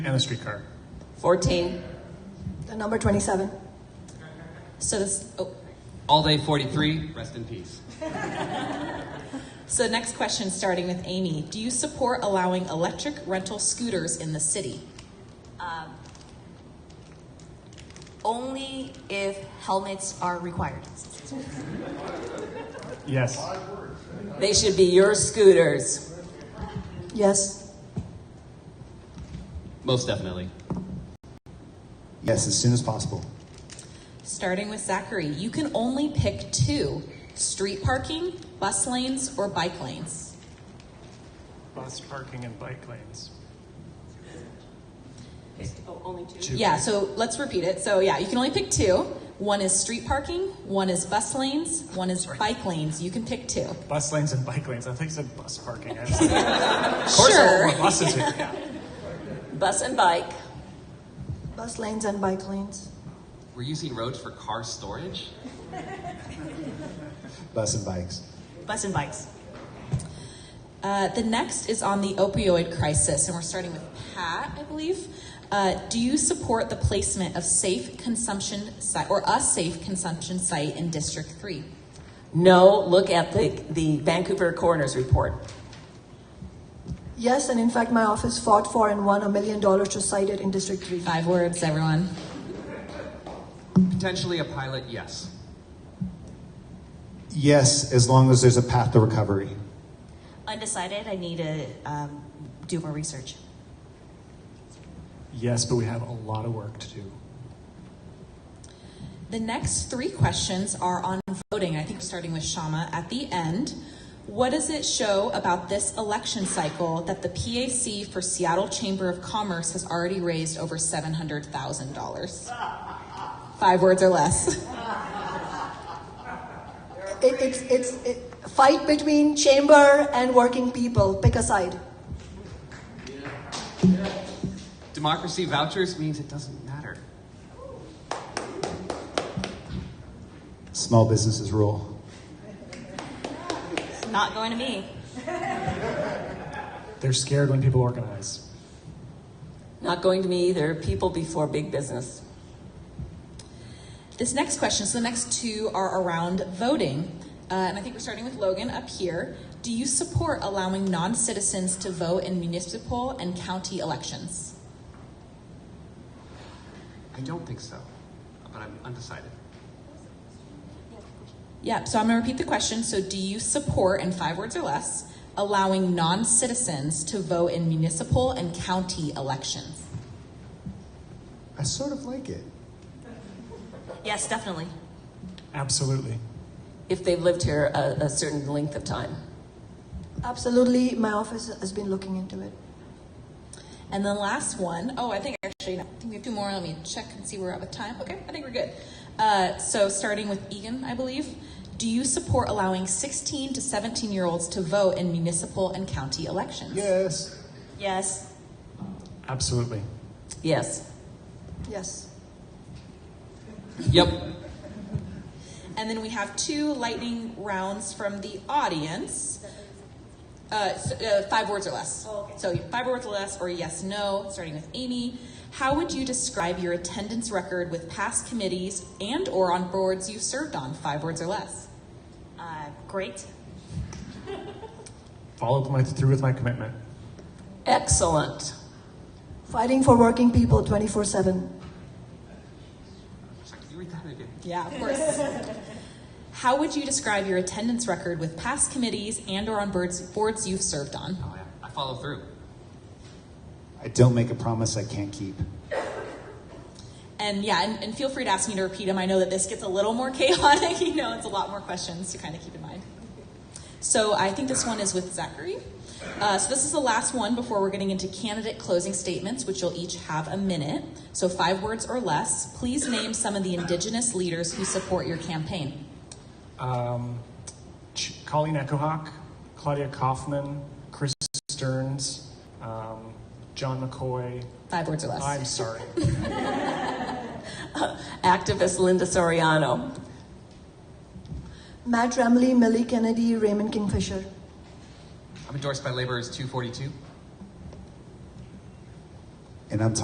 and the streetcar. 14. The number 27. So this, oh, All Day 43, rest in peace. so next question, starting with Amy. Do you support allowing electric rental scooters in the city? Only if helmets are required. Yes. They should be your scooters. Yes. Most definitely. Yes, as soon as possible. Starting with Zachary, you can only pick two street parking, bus lanes, or bike lanes. Bus parking and bike lanes. Yeah, so let's repeat it. So, yeah, you can only pick two. One is street parking, one is bus lanes, one is bike lanes. You can pick two. Bus lanes and bike lanes. I think you said bus parking. I was like, of course there are Sure. more buses here. Yeah. Bus and bike. Bus lanes and bike lanes. We're using roads for car storage? Bus and bikes. Bus and bikes. Uh, the next is on the opioid crisis, and we're starting with Pat, I believe. Uh, do you support the placement of safe consumption site or a safe consumption site in District Three? No, look at the, the Vancouver coroner's report. Yes, and in fact, my office fought for and won a million dollars to cite it in District 3. Five words, everyone. Potentially a pilot, yes. Yes, as long as there's a path to recovery. Undecided, I need to um, do more research. Yes, but we have a lot of work to do. The next three questions are on voting. I think we're starting with Shama at the end. What does it show about this election cycle that the PAC for Seattle Chamber of Commerce has already raised over seven hundred thousand dollars? Five words or less. It, it's it's it, fight between chamber and working people. Pick a side. Democracy vouchers means it doesn't matter. Small businesses rule. Not going to me. They're scared when people organize. Not going to me either. People before big business. This next question, so the next two are around voting. Uh, and I think we're starting with Logan up here. Do you support allowing non citizens to vote in municipal and county elections? I don't think so, but I'm undecided. Yep, so I'm going to repeat the question. So, do you support, in five words or less, allowing non citizens to vote in municipal and county elections? I sort of like it. Yes, definitely. Absolutely. If they've lived here a, a certain length of time. Absolutely, my office has been looking into it. And the last one, oh, I think actually, no, I think we have two more. Let me check and see where we're at with time. Okay, I think we're good. Uh, so, starting with Egan, I believe, do you support allowing 16 to 17 year olds to vote in municipal and county elections? Yes. Yes. Absolutely. Yes. Yes. Yep. And then we have two lightning rounds from the audience. Uh, s- uh, five words or less. Oh, So five words or less, or yes, no. Starting with Amy, how would you describe your attendance record with past committees and/or on boards you've served on? Five words or less. Uh, great. Follow my, through with my commitment. Excellent. Fighting for working people 24 7. Sorry, Can you read that again? Yeah, of course. How would you describe your attendance record with past committees and/or on boards boards you've served on? Oh, yeah. I follow through. I don't make a promise I can't keep. And yeah, and, and feel free to ask me to repeat them. I know that this gets a little more chaotic. You know, it's a lot more questions to kind of keep in mind. So I think this one is with Zachary. Uh, so this is the last one before we're getting into candidate closing statements, which you'll each have a minute. So five words or less. Please name some of the indigenous leaders who support your campaign. Um, Ch- Colleen Echohawk, Claudia Kaufman, Chris Stearns, um, John McCoy. Five words or less. I'm sorry. Activist Linda Soriano. Matt Remley, Millie Kennedy, Raymond Kingfisher. I'm endorsed by Laborers 242. and I'm